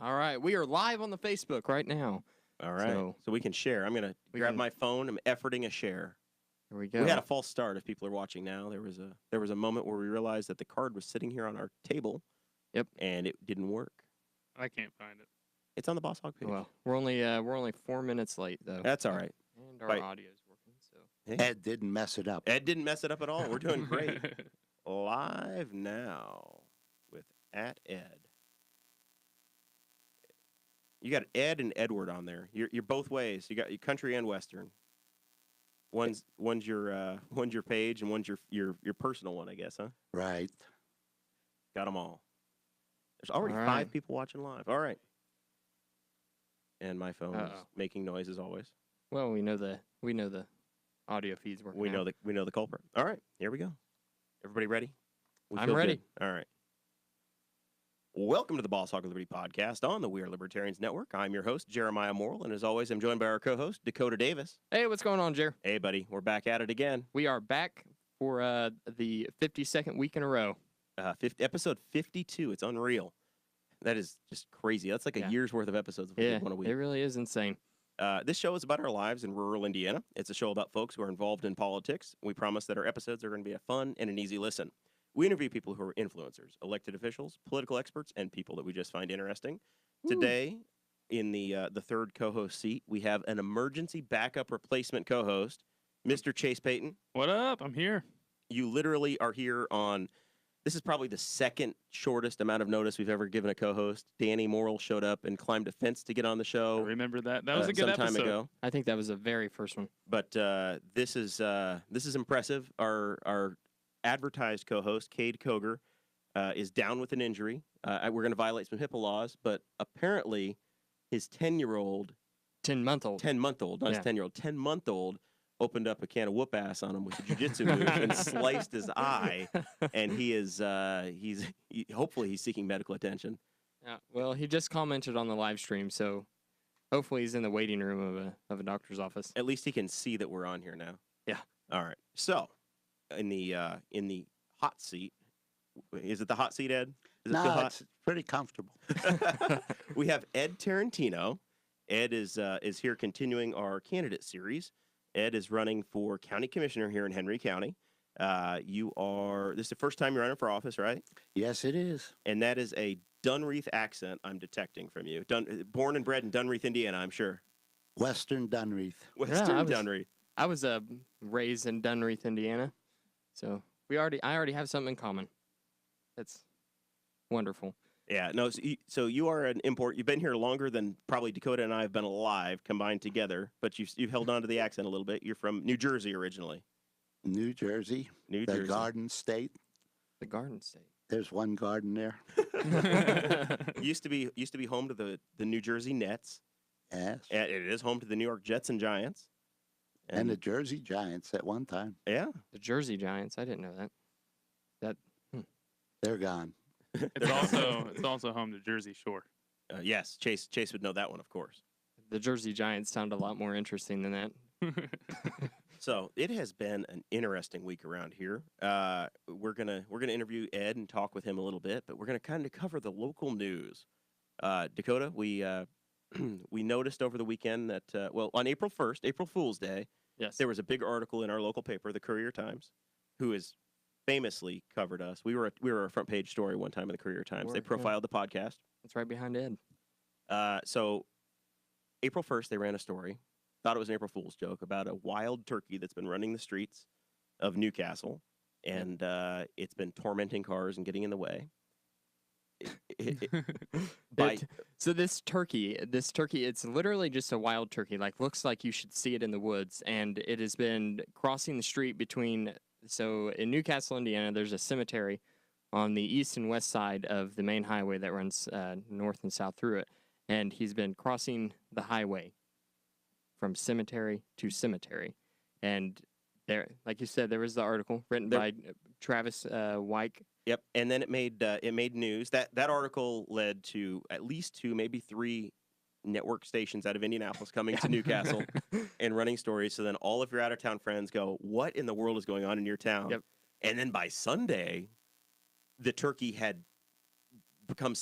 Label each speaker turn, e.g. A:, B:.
A: All right, we are live on the Facebook right now.
B: All right. So,
A: So-
B: we can share. I'm gonna
A: We
B: grab
A: can-
B: my phone. I'm efforting a share.
A: Here we go.
B: We had a false start. If people are watching now, there was a there was a moment where we realized that the card was sitting here on our table.
A: Yep.
B: And it didn't work.
C: I can't find it.
B: It's on the Boss Hog page.
A: well, we're only uh, we're only four minutes late though.
B: That's all right.
A: And our
B: Right.
A: audio is working. So
D: Ed didn't mess it up.
B: Ed didn't mess it up at all. We're doing great. Live now with at Ed. You got Ed and Edward on there. You're you're both ways. You got your country and western. One's one's your uh, one's your page and one's your your your personal one, I guess, huh?
D: Right.
B: Got them all. There's already
A: All
B: five
A: right.
B: people watching live. All right. And my phone is
A: Uh-oh.
B: making noise as always.
A: well, we know the we know the audio feeds working.
B: We
A: out.
B: know the we know the culprit. All right, here we go. Everybody ready? We
A: I'm
B: feel
A: ready.
B: good. All right. Welcome to the Boss Hog of Liberty podcast on the We Are Libertarians Network. I'm your host Jeremiah Morrill, and as always, I'm joined by our co-host Dakota Davis.
A: Hey, what's going on, Jer?
B: Hey, buddy, we're back at it again.
A: We are back for uh, the 52nd week in a row.
B: Uh, 50, episode 52. It's unreal. That is just crazy. That's like a
A: Yeah.
B: year's worth of episodes. if we did
A: Yeah,
B: one a week.
A: it really is insane.
B: Uh, this show is about our lives in rural Indiana. It's a show about folks who are involved in politics. We promise that our episodes are going to be a fun and an easy listen. We interview people who are influencers, elected officials, political experts, and people that we just find interesting. Today, in the uh, the third co-host seat, we have an emergency backup replacement co-host, Mr. Chase Payton.
C: What up? I'm here.
B: You literally are here on. This is probably the second shortest amount of notice we've ever given a co-host. Danny Morrill showed up and climbed a fence to get on the
C: I
B: show.
C: remember that. That was
B: uh,
C: a good
B: some time
C: episode.
B: ago.
A: I think that was the very first one.
B: but uh, this is uh, this is impressive. Our our advertised co-host Cade Koger uh, is down with an injury. Uh, we're going to violate some HIPAA laws, but apparently his ten year old,
A: 10 month old.
B: ten month old, not
A: Yeah.
B: his ten year old, ten month old opened up a can of whoop ass on him with a jujitsu move and sliced his eye, and he is uh, he's he, hopefully he's seeking medical attention.
A: Yeah, well, he just commented on the live stream, so hopefully he's in the waiting room of a, of a doctor's office.
B: At least he can see that we're on here now.
A: Yeah.
B: All right. So, in the uh, in the hot seat, is it the hot seat, Ed? Is it still
D: No,
B: hot?
D: it's pretty comfortable.
B: We have Ed Tarantino. Ed is uh, is here continuing our candidate series. Ed is running for county commissioner here in Henry County. Uh, you are this is the first time you're running for office, right?
D: Yes, it is.
B: And that is a Dunreath accent I'm detecting from you. Dun, born and bred in Dunreath, Indiana, I'm sure.
D: Western Dunreath.
B: Western
A: I was-
B: Dunreath.
A: I was uh, raised in Dunreath, Indiana, so we already I already have something in common. That's wonderful.
B: Yeah, no. So you, so you are an import. You've been here longer than probably Dakota and I have been alive combined together. But you've you've held on to the accent a little bit. You're from New Jersey originally.
D: New Jersey,
B: New
D: the
B: Jersey.
D: Garden State.
A: The Garden State.
D: There's one garden there.
B: used to be used to be home to the the New Jersey Nets.
D: Yes. And,
B: And it is home to the New York Jets and Giants.
D: the Jersey Giants at one time.
B: yeah,
A: The Jersey Giants. I didn't know that. That
D: They're gone.
C: It's also it's also home to Jersey Shore.
B: uh, yes. Chase Chase would know that one, of course.
A: the Jersey Giants sound a lot more interesting than that.
B: So it has been an interesting week around here. Uh, we're gonna we're gonna interview Ed and talk with him a little bit, but we're gonna kind of cover the local news. Uh, Dakota, we uh, we noticed over the weekend that uh, well on April first, April Fool's Day,
A: Yes.
B: there was a big article in our local paper, the Courier Times, who has famously covered us. We were a, we were a front page story one time in the Courier Times.
A: Were,
B: they
A: yeah.
B: profiled the podcast.
A: It's right behind Ed.
B: Uh, so April 1st, they ran a story. Thought it was an April Fool's joke about a wild turkey that's been running the streets of Newcastle, and uh, it's been tormenting cars and getting in the way. It- it- it- by-
A: It- so this turkey, this turkey, it's literally just a wild turkey. Like looks like you should see it in the woods, and it has been crossing the street between. So in Newcastle, Indiana, there's a cemetery on the east and west side of the main highway that runs uh, north and south through it, and he's been crossing the highway from cemetery to cemetery, and there, like you said, there was the article written
B: There-
A: by Travis uh, Wyke.
B: yep, and then it made uh, it made news. That that article led to at least two, maybe three network stations out of Indianapolis coming to Newcastle and running stories. So then all of your out of town friends go, "What in the world is going on in your town?"
A: Yep.
B: And then by Sunday, the turkey had become